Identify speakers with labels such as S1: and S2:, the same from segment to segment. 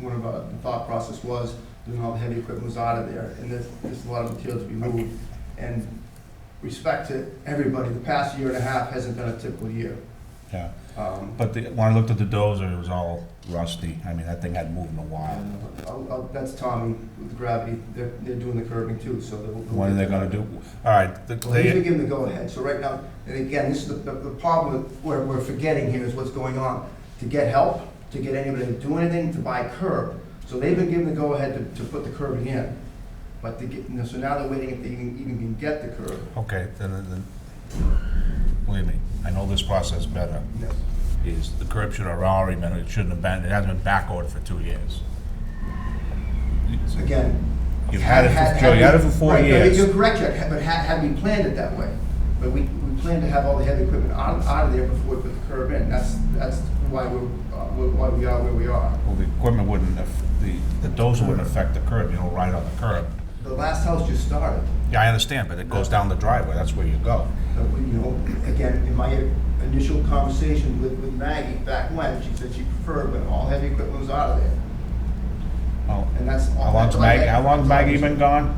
S1: pro- the thought process was, doing all the heavy equipment was out of there, and there's, there's a lot of material to be moved. And respect to everybody, the past year and a half hasn't been a typical year.
S2: yeah.
S1: Um,
S2: But the, when I looked at the dozer, it was all rusty. I mean, that thing hadn't moved in a while.
S1: and I'll- I'll- That's Tommy with gravity, they're, they're doing the curbing too, so they'll.
S2: What are they gonna do? All right, the-
S1: Well, he's
S2: they,
S1: gonna give them the go-ahead, so right now, and again, this is the, the the problem with- we're, we're forgetting here is what's going on. To get help, to get anybody to do anything, to buy curb, so they've been given the go-ahead to, to put the curbing in. But to get, so now they're waiting if they even, even can get the curb.
S2: okay, then, then- then, believe me, I know this process better.
S1: Yes.
S2: Is the curb should have already been, it shouldn't have been, it hasn't been back ordered for two years.
S1: Again.
S2: You've had it
S1: had-
S2: for, Joe, you had it for
S1: had we-
S2: four
S1: right, no,
S2: years.
S1: You're correct, Jack, but had, had we planned it that way, but we, we planned to have all the heavy equipment out, out of there before we put the curb in. That's, that's why we're, uh, why we are where we are.
S2: Well, the equipment wouldn't, aff- the, the dozer wouldn't affect the curb, you know, right on the curb.
S1: The last house just started.
S2: Yeah, I understand, but it goes down the driveway, that's where you go.
S1: But we, you know, again, in my initial conversation with, with Maggie back when, she said she preferred when all heavy equipment was out of there,
S2: Well,
S1: and that's all.
S2: How long's Maggie, how long's Maggie been gone?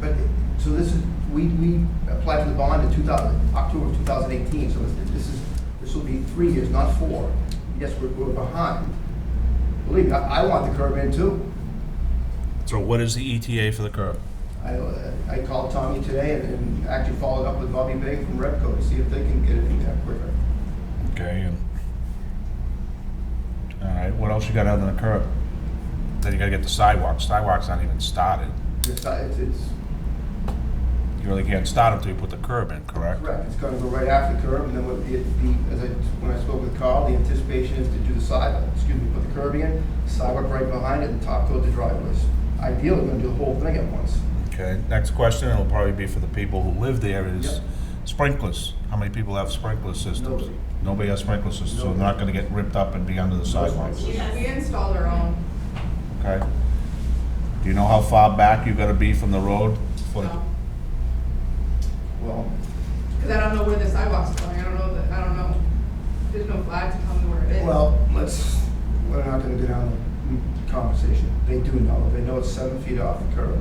S1: But, so this is, we, we applied for the bond in two thousand, October of two thousand eighteen, so this, this is, this will be three years, not four. Yes, we're, we're behind. Believe me, I, I want the curb in too.
S2: So what is the ETA for the curb?
S1: I, I called Tommy today and- and actually followed up with Bobby Bay from Repco to see if they can get it in there quicker.
S2: Okay, and, all right, what else you got other than the curb? Then you gotta get the sidewalk, sidewalk's not even started.
S1: It's, it's, it's
S2: You really can't start until you put the curb in, correct?
S1: Correct, it's gonna go right after the curb, and then what the, the, as I, when I spoke with Carl, the anticipation is to do the sidewalk, excuse me, put the curb in, sidewalk right behind it, and top coat the driveways. Ideally, we're gonna do the whole thing at once.
S2: Okay, next question, it'll probably be for the people who live there, is
S1: Yep.
S2: sprinklers. How many people have sprinkler systems?
S1: Nobody.
S2: Nobody has sprinkler systems, so they're
S1: Nobody.
S2: not gonna get ripped up and be under the sidewalks,
S3: We we installed our own.
S2: okay? Do you know how far back you gotta be from the road? for-
S1: Uh,
S3: Because
S1: Well,
S3: I don't know where the sidewalks are going, I don't know, that- I don't know, there's no flag to tell me where it is.
S1: well, let's, we're not gonna go down the conversation. They do know, they know it's seven feet off the curb,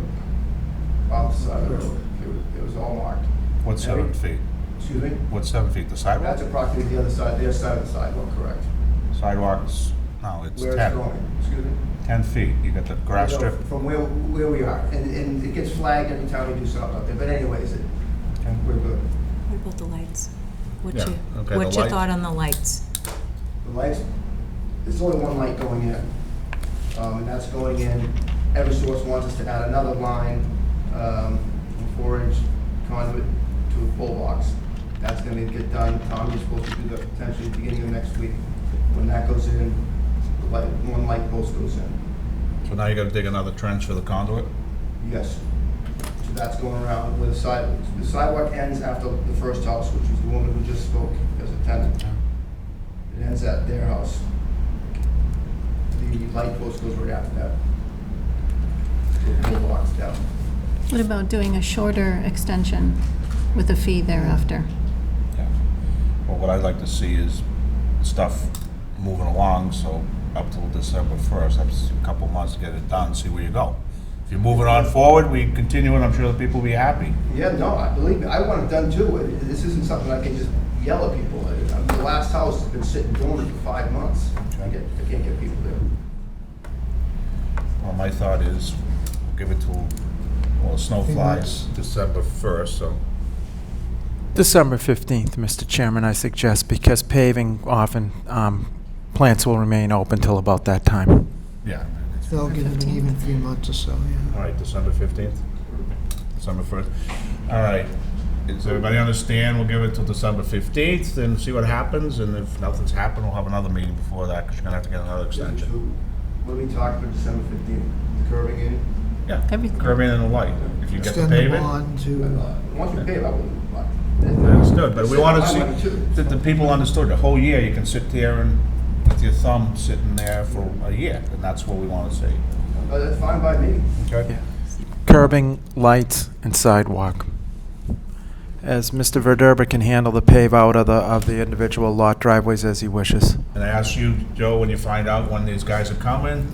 S1: off the side of the road. It was, it was all marked.
S2: What's seven feet?
S1: Excuse me?
S2: What's seven feet, the sidewalk?
S1: That's approximately the other side, their side of the sidewalk, correct?
S2: Sidewalks, no, it's
S1: Where it's
S2: 10,
S1: going, excuse me?
S2: 10 feet. You got the grass
S1: No,
S2: strip,
S1: From where, where we are, and, and it gets flagged every time we do something out there, but anyways, it,
S2: Okay.
S1: we're good.
S4: What about the lights?
S2: Yeah,
S4: What's your,
S2: okay,
S4: what's
S2: the
S4: your
S2: lights.
S4: thought on the lights?
S1: The lights, there's only one light going in, um, and that's going in, Eversource wants us to add another line, um, from four inch conduit to a full box. That's gonna get done, Tom, you're supposed to do that potentially beginning of next week. When that goes in, the light, one light post goes in,
S2: so now you gotta dig another trench for the conduit?
S1: yes. So that's going around with the sidewalk, the sidewalk ends after the first house, which was the woman who just spoke as a tenant. It ends at their house. The light post goes right after that. The pole box down.
S5: What about doing a shorter extension with a fee thereafter?
S2: Yeah. Well, what I'd like to see is stuff moving along, so up till December 1st, that's a couple months to get it done, see where you go. If you're moving on forward, we continue, and I'm sure the people will be happy.
S1: Yeah, no, I believe me, I want it done too. It- This isn't something I can just yell at people. I- I- The last house has been sitting dormant for five months. I get, I can't get people there.
S2: Well, my thought is, give it till, well, the snow flies December 1st, so.
S6: December 15th, Mr. Chairman, I suggest, because paving often, um, plants will remain open till about that time.
S2: Yeah.
S7: They'll give them an even three months or so, yeah.
S2: All right, December 15th? December 1st. All right. Does everybody understand? We'll give it till December 15th and see what happens, and if nothing's happened, we'll have another meeting before that, because you're gonna have to get another extension.
S1: What are we talking about December fifteenth? The curving in?
S2: Yeah,
S5: Everything.
S2: curbing and the light. If you get the
S7: Extend the
S2: pavement.
S7: bond to,
S1: Uh, Once we pave, I wouldn't. like-
S2: Understood, but we want to
S1: I
S2: see,
S1: want it too.
S2: that the people understood, the whole year, you can sit there and, with your thumb sitting there for a year, and that's what we want to see.
S1: Uh, That's fine by me.
S2: Okay?
S6: Curbing, lights, and sidewalk. As Mr. Verderber can handle the pave out of the, of the individual lot driveways as he wishes.
S2: And I asked you, Joe, when you find out when these guys are coming,